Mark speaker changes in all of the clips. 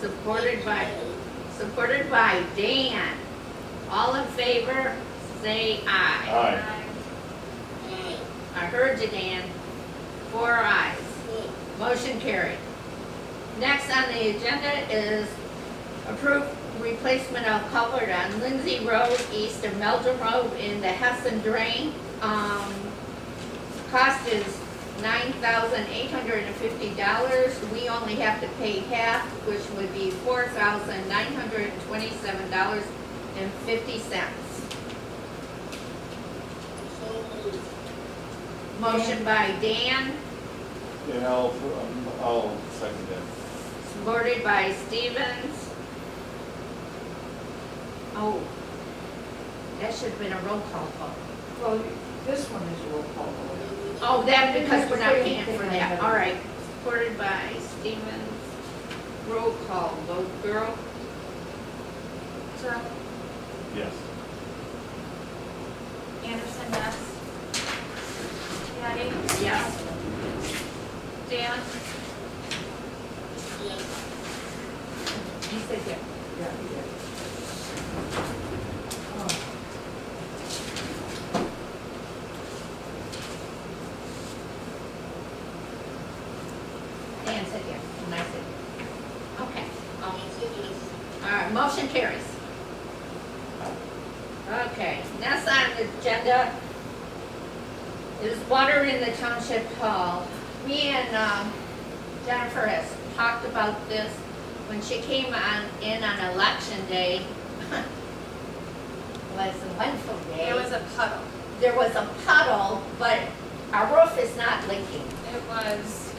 Speaker 1: supported by, supported by Dan. All in favor, say aye.
Speaker 2: Aye.
Speaker 1: I heard you, Dan. Four ayes. Motion carried. Next on the agenda is approve replacement of culvert on Lindsay Road east of Meldrum Road in the Hessen Drain. Um, cost is nine thousand eight hundred and fifty dollars. We only have to pay half, which would be four thousand nine hundred and twenty-seven dollars and fifty cents. Motion by Dan,
Speaker 2: And I'll, um, I'll second that.
Speaker 1: supported by Stevens. Oh, that should have been a roll call vote.
Speaker 3: Well, this one is a roll call vote.
Speaker 1: Oh, that because we're not paying for that, all right. Supported by Stevens, roll call vote, girl.
Speaker 4: Terrell,
Speaker 2: Yes.
Speaker 4: Anderson, yes. Patty?
Speaker 1: Yes.
Speaker 4: Dan?
Speaker 1: You said yes.
Speaker 3: Yeah, you did. Oh,
Speaker 1: Dan said yes, and I said yes. Okay. um, All right, motion carries. Okay, next on the agenda is water in the township hall. Me and um, Jennifer has talked about this when she came on, in on election day. Was a wonderful day.
Speaker 4: It was a puddle.
Speaker 1: There was a puddle, but our roof is not leaking.
Speaker 4: It was,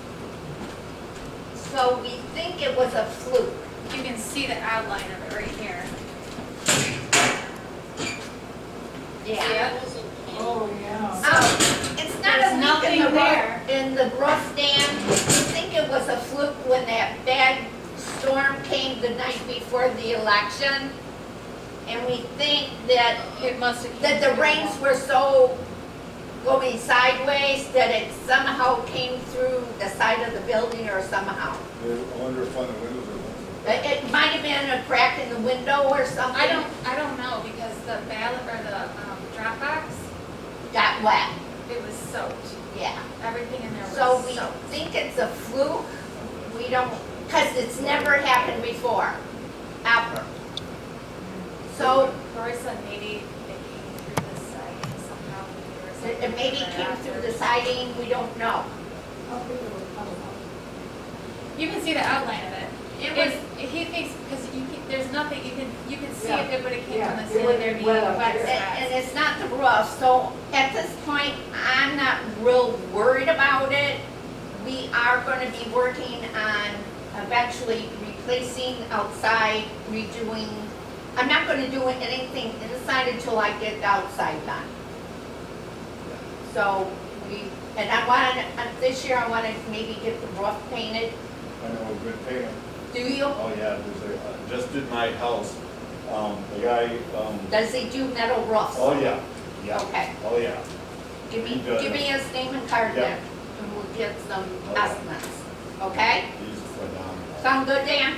Speaker 1: So we think it was a fluke.
Speaker 4: you can see the outline of it right here. See it?
Speaker 3: oh, yeah.
Speaker 1: Oh, it's not
Speaker 4: There's
Speaker 1: a leak in the
Speaker 4: nothing there.
Speaker 1: roof, in the roof dam. I think it was a fluke when that bad storm came the night before the election. And we think that,
Speaker 4: It must have.
Speaker 1: that the rains were so going sideways that it somehow came through the side of the building or somehow.
Speaker 2: I wonder if on the windows are.
Speaker 1: It it might have been a crack in the window or something.
Speaker 4: I don't, I don't know, because the ballot, or the um, Dropbox,
Speaker 1: Got wet,
Speaker 4: it was soaked.
Speaker 1: yeah.
Speaker 4: Everything in there
Speaker 1: So
Speaker 4: was
Speaker 1: we
Speaker 4: soaked.
Speaker 1: think it's a fluke, we don't, because it's never happened before, ever. So
Speaker 4: Lori said maybe it came through the site somehow. or
Speaker 1: it
Speaker 4: something
Speaker 1: it maybe
Speaker 4: like
Speaker 1: came
Speaker 4: that.
Speaker 1: through the siding, we don't know.
Speaker 3: How big of a puddle was
Speaker 4: You can see the outline of it.
Speaker 1: It was,
Speaker 4: If, if he thinks, because you can, there's nothing, you can, you can see
Speaker 3: Yeah.
Speaker 4: if it would have came
Speaker 3: Yeah,
Speaker 4: from the
Speaker 3: it
Speaker 4: ceiling,
Speaker 3: would've
Speaker 4: there'd
Speaker 3: been
Speaker 4: be
Speaker 3: well
Speaker 4: wet
Speaker 3: up
Speaker 1: and-
Speaker 3: there.
Speaker 4: spots.
Speaker 1: and it's not the roof, so at this point, I'm not real worried about it. We are gonna be working on eventually replacing outside, redoing. I'm not gonna do anything inside until I get the outside done. So we, and I wanted, uh, this year I wanted to maybe get the roof painted.
Speaker 2: I know, we've been paying.
Speaker 1: Do you?
Speaker 2: Oh, yeah, there's a, I just did my house. Um, the guy, um,
Speaker 1: Does he do metal roofs?
Speaker 2: oh, yeah, yeah,
Speaker 1: Okay,
Speaker 2: oh, yeah.
Speaker 1: give me,
Speaker 2: He does.
Speaker 1: give me his name and card
Speaker 2: Yeah.
Speaker 1: then, and we'll get some
Speaker 2: Okay.
Speaker 1: estimates, okay?
Speaker 2: He's phenomenal.
Speaker 1: Sound good, Dan?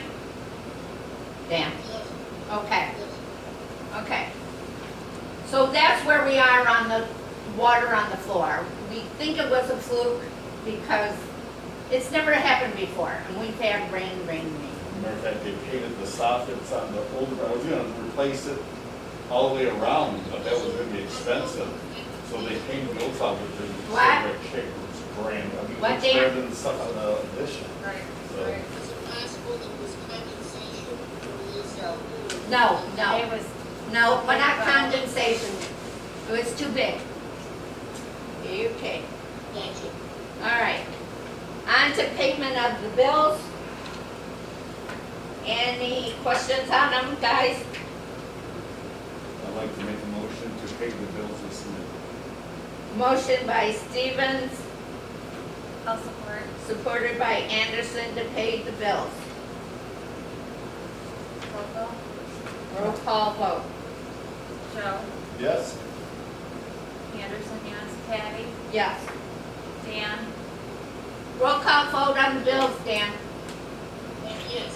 Speaker 1: Dan? Okay. Okay. So that's where we are on the water on the floor. We think it was a fluke because it's never happened before, and we've had rain, rain, rain.
Speaker 2: Matter of fact, they painted the soffits on the old, I was gonna replace it all the way around, but that was gonna be expensive. So they painted the old soffits, and so
Speaker 1: What?
Speaker 2: that shape was grand. I mean, it
Speaker 1: What,
Speaker 2: was
Speaker 1: Dan?
Speaker 2: better than the stuff on the addition.
Speaker 4: Right,
Speaker 2: So-
Speaker 4: right.
Speaker 5: Is it possible it was condensation from the cell?
Speaker 1: No, no.
Speaker 4: It was,
Speaker 1: No, but not condensation. It was too big. Okay,
Speaker 5: Gotcha.
Speaker 1: all right. On to payment of the bills. Any questions on them, guys?
Speaker 2: I'd like to make a motion to pay the bills as submitted.
Speaker 1: Motion by Stevens,
Speaker 4: I'll support.
Speaker 1: supported by Anderson to pay the bills.
Speaker 4: Local.
Speaker 1: Roll call vote.
Speaker 4: Joe.
Speaker 2: Yes?
Speaker 4: Anderson, yes. Patty.
Speaker 1: Yes.
Speaker 4: Dan.
Speaker 1: Roll call vote on the bills, Dan.
Speaker 5: Yes.